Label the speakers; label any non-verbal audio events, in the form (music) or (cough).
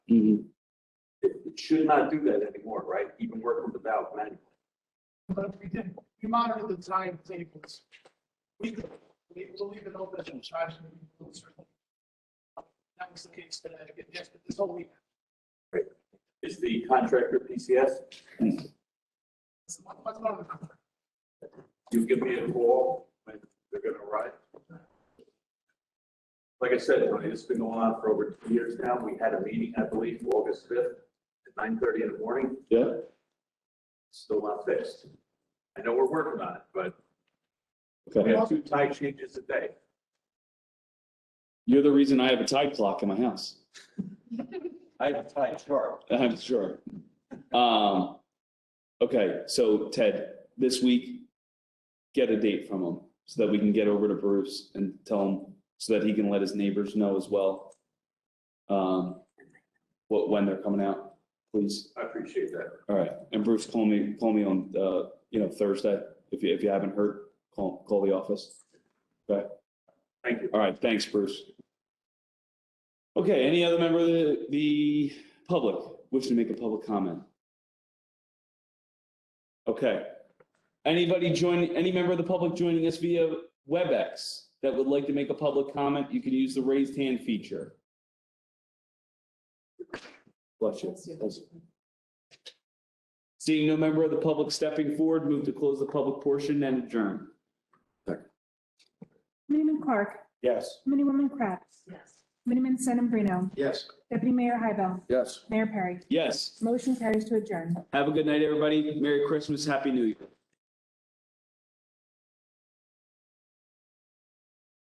Speaker 1: Mm-hmm.
Speaker 2: Mhm.
Speaker 1: It it should not do that anymore, right? Even work with the valve manually.
Speaker 3: But if we did, we monitor the time tables. We could, we will leave it open and try to. remove certain- That was the case that I get, yes, but this whole week.
Speaker 1: Is the contractor PCS?
Speaker 3: it's a lot- much more of a-
Speaker 1: You give me a call when they're gonna arrive. Like I said, Tony, it's been going on for over two years now. We had a meeting, I believe, August fifth at nine thirty in the morning.
Speaker 2: Yeah,
Speaker 1: Still not fixed. I know we're working on it, but we
Speaker 2: okay.
Speaker 1: have two tide changes a day.
Speaker 2: You're the reason I have a tide clock in my house, (laughs)
Speaker 1: I have a tide chart.
Speaker 2: I'm sure. Um, okay, so Ted, this week, get a date from him so that we can get over to Bruce and tell him, so that he can let his neighbors know as well. Um, what, when they're coming out, please.
Speaker 1: I appreciate that.
Speaker 2: All right, and Bruce, call me, call me on, uh, you know, Thursday, if you, if you haven't heard, call, call the office.
Speaker 1: Thank you.
Speaker 2: All right, thanks, Bruce. Okay, any other member of the, the public wishing to make a public comment? Okay. Anybody join, any member of the public joining us via WebEx that would like to make a public comment, you can use the raised hand feature. Bless you. Bless you. Seeing no member of the public stepping forward, move to close the public portion and adjourn.
Speaker 4: Miniman Clark,
Speaker 2: Yes.
Speaker 4: Miniwoman Kratz. Yes. Miniman Sedambrino,
Speaker 3: Yes.
Speaker 4: Deputy Mayor Hybel,
Speaker 2: Yes.
Speaker 4: Mayor Perry.
Speaker 2: Yes.
Speaker 4: Motion carries to adjourn.
Speaker 2: Have a good night, everybody. Merry Christmas, Happy New Year.